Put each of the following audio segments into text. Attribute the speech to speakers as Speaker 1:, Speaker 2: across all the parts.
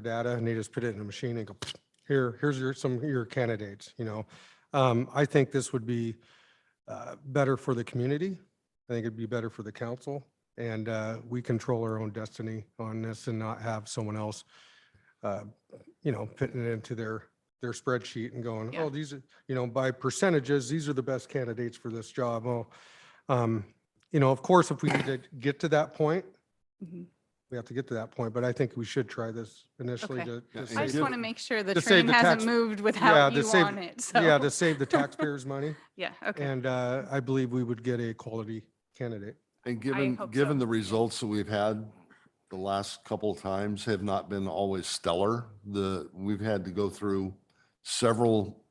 Speaker 1: data and they just put it in a machine and go, here, here's your, some of your candidates, you know. Um, I think this would be uh, better for the community. I think it'd be better for the council. And uh, we control our own destiny on this and not have someone else, uh, you know, putting it into their, their spreadsheet and going,
Speaker 2: Yeah.
Speaker 1: oh, these, are you know, by percentages, these are the best candidates for this job. Oh, um, you know, of course, if we need to get to that point,
Speaker 2: Mhm.
Speaker 1: we have to get to that point, but I think we should try this initially
Speaker 2: Okay.
Speaker 1: to.
Speaker 3: Yeah,
Speaker 1: to
Speaker 3: and
Speaker 1: save-
Speaker 2: I just
Speaker 3: give-
Speaker 2: want to make sure the
Speaker 1: to save
Speaker 2: train
Speaker 1: the
Speaker 2: hasn't
Speaker 1: tax-
Speaker 2: moved
Speaker 1: Yeah,
Speaker 2: without
Speaker 1: to
Speaker 2: you
Speaker 1: save-
Speaker 2: on it, so.
Speaker 1: Yeah, to save the taxpayers' money.
Speaker 2: Yeah, okay.
Speaker 1: And uh, I believe we would get a quality candidate.
Speaker 3: And given,
Speaker 2: hope
Speaker 3: given
Speaker 2: so.
Speaker 3: the results that we've had the last couple of times have not been always stellar, the, we've had to go through several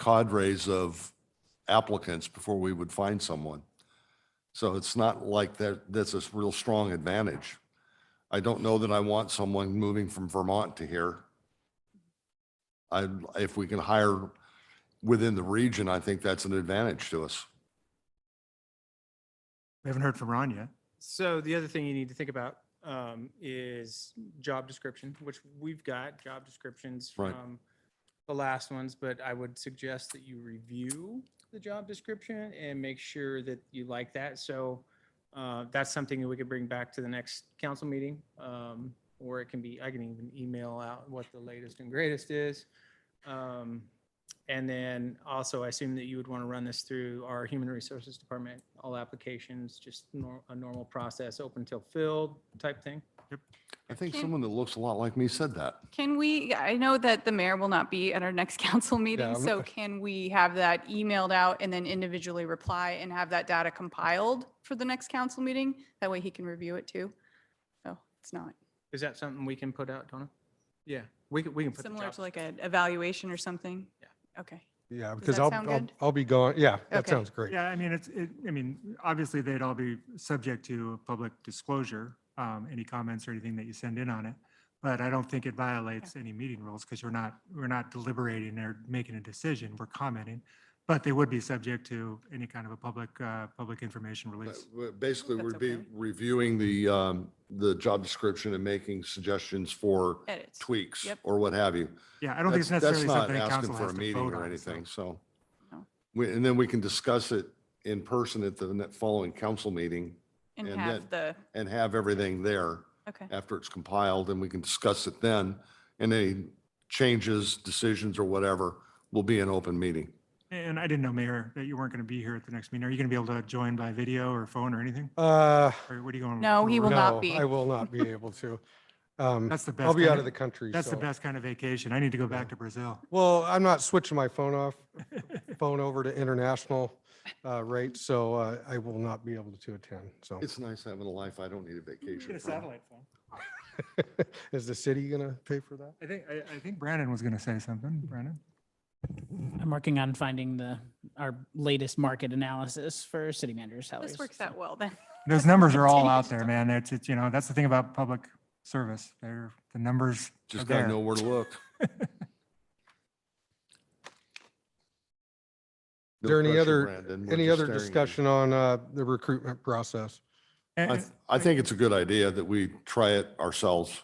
Speaker 3: cadres of applicants before we would find someone. So it's not like that, that's a real strong advantage. I don't know that I want someone moving from Vermont to here. I, if we can hire within the region, I think that's an advantage to us.
Speaker 4: We haven't heard from Ron yet.
Speaker 5: So the other thing you need to think about um, is job description, which we've got job descriptions
Speaker 3: Right.
Speaker 5: from the last ones, but I would suggest that you review the job description and make sure that you like that. So uh, that's something that we could bring back to the next council meeting. um, Or it can be, I can even email out what the latest and greatest is. Um, And then also, I assume that you would want to run this through our Human Resources Department, all applications, just nor- a normal process, open till filled type thing.
Speaker 3: I think
Speaker 2: Can-
Speaker 3: someone that looks a lot like me said that.
Speaker 2: Can we, I know that the mayor will not be at our next council meeting,
Speaker 1: I'm-
Speaker 2: so can we have that emailed out and then individually reply and have that data compiled for the next council meeting? That way he can review it too. So it's not
Speaker 5: Is that something we can put out, Donna? Yeah, we can, we can put the
Speaker 2: similar
Speaker 5: job.
Speaker 2: to like an evaluation or something?
Speaker 5: Yeah.
Speaker 2: Okay.
Speaker 1: Yeah, because
Speaker 2: that
Speaker 1: I'll,
Speaker 2: sound
Speaker 1: I'll-
Speaker 2: good?
Speaker 1: I'll be gone. Yeah, that
Speaker 2: Okay.
Speaker 1: sounds great.
Speaker 4: Yeah, I mean, it's, it, I mean, obviously they'd all be subject to public disclosure, um, any comments or anything that you send in on it. But I don't think it violates any meeting rules because we're not, we're not deliberating or making a decision. We're commenting. But they would be subject to any kind of a public, uh, public information release.
Speaker 3: Basically,
Speaker 2: That's
Speaker 3: we'd be
Speaker 2: okay.
Speaker 3: reviewing the, um, the job description and making suggestions for
Speaker 2: Edits.
Speaker 3: tweaks
Speaker 2: Yep.
Speaker 3: or what have you.
Speaker 4: Yeah, I don't think it's
Speaker 3: That's- that's
Speaker 4: necessarily
Speaker 3: not
Speaker 4: something that
Speaker 3: asking
Speaker 4: council
Speaker 3: for a
Speaker 4: has to
Speaker 3: meeting
Speaker 4: vote
Speaker 3: or
Speaker 4: on. so.
Speaker 3: Anything, so.
Speaker 2: No.
Speaker 3: We- And then we can discuss it in person at the ne- following council meeting
Speaker 2: And
Speaker 3: And
Speaker 2: have the,
Speaker 3: and have everything there
Speaker 2: okay,
Speaker 3: after it's compiled and we can discuss it then. And any changes, decisions or whatever will be an open meeting.
Speaker 4: And I didn't know, Mayor, that you weren't going to be here at the next meeting. Are you going to be able to join by video or phone or anything?
Speaker 1: Uh,
Speaker 4: Or what are you going?
Speaker 2: No, he will not
Speaker 1: no,
Speaker 2: be.
Speaker 1: I will not be able to. Um,
Speaker 4: That's the best.
Speaker 1: I'll be
Speaker 4: kind
Speaker 1: out of the country.
Speaker 4: That's the
Speaker 1: so-
Speaker 4: best kind of vacation. I need to go back
Speaker 1: Yeah.
Speaker 4: to Brazil.
Speaker 1: Well, I'm not switching my phone off, phone over to international uh, rate, so uh, I will not be able to attend. So
Speaker 3: It's nice having a life I don't need a vacation
Speaker 4: Get a
Speaker 3: from.
Speaker 4: satellite phone.
Speaker 1: is the city going to pay for that?
Speaker 4: I think, I, I think Brandon was going to say something. Brandon?
Speaker 6: I'm working on finding the, our latest market analysis for city manager salaries.
Speaker 2: this works
Speaker 6: so.
Speaker 2: out well then.
Speaker 4: Those numbers are all out there, man. It's, it's, you know, that's the thing about public service. They're, the numbers are
Speaker 3: Just gotta
Speaker 4: there.
Speaker 3: know where to look.
Speaker 1: Is there any other- Any other discussion on uh, the recruitment process?
Speaker 4: And-
Speaker 3: I, th- I think it's a good idea that we try it ourselves,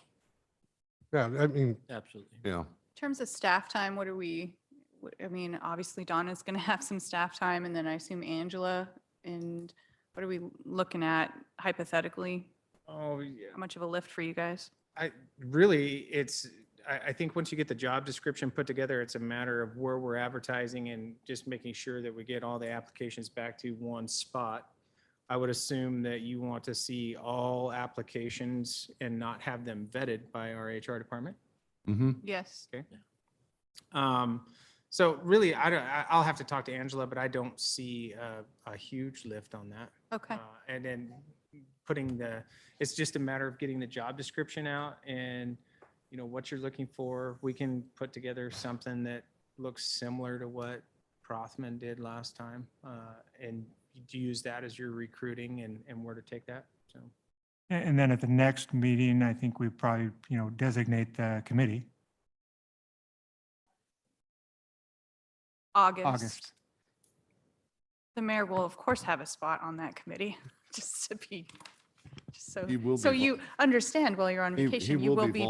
Speaker 1: Yeah, I mean,
Speaker 7: Absolutely.
Speaker 3: Yeah,
Speaker 2: In terms of staff time, what are we, what- I mean, obviously Donna's going to have some staff time and then I assume Angela. And what are we looking at hypothetically?
Speaker 5: Oh, yeah.
Speaker 2: How much of a lift for you guys?
Speaker 5: I, really, it's, I, I think once you get the job description put together, it's a matter of where we're advertising and just making sure that we get all the applications back to one spot. I would assume that you want to see all applications and not have them vetted by our HR department.
Speaker 3: Mm-hmm.
Speaker 2: Yes.
Speaker 5: Um, so really, I don't, I, I'll have to talk to Angela, but I don't see a, a huge lift on that.
Speaker 2: Okay.
Speaker 5: Uh, And then putting the, it's just a matter of getting the job description out and, you know, what you're looking for. We can put together something that looks similar to what Prothman did last time. uh, And you use that as your recruiting and, and where to take that, so.
Speaker 4: And and then at the next meeting, I think we probably, you know, designate the committee,
Speaker 2: August.
Speaker 4: August.
Speaker 2: The mayor will of course have a spot on that committee, just to be, just so,
Speaker 3: He will
Speaker 2: so
Speaker 3: be vol-
Speaker 2: you understand while you're on
Speaker 3: He- he
Speaker 2: vacation, you
Speaker 3: will
Speaker 2: will
Speaker 3: be
Speaker 2: be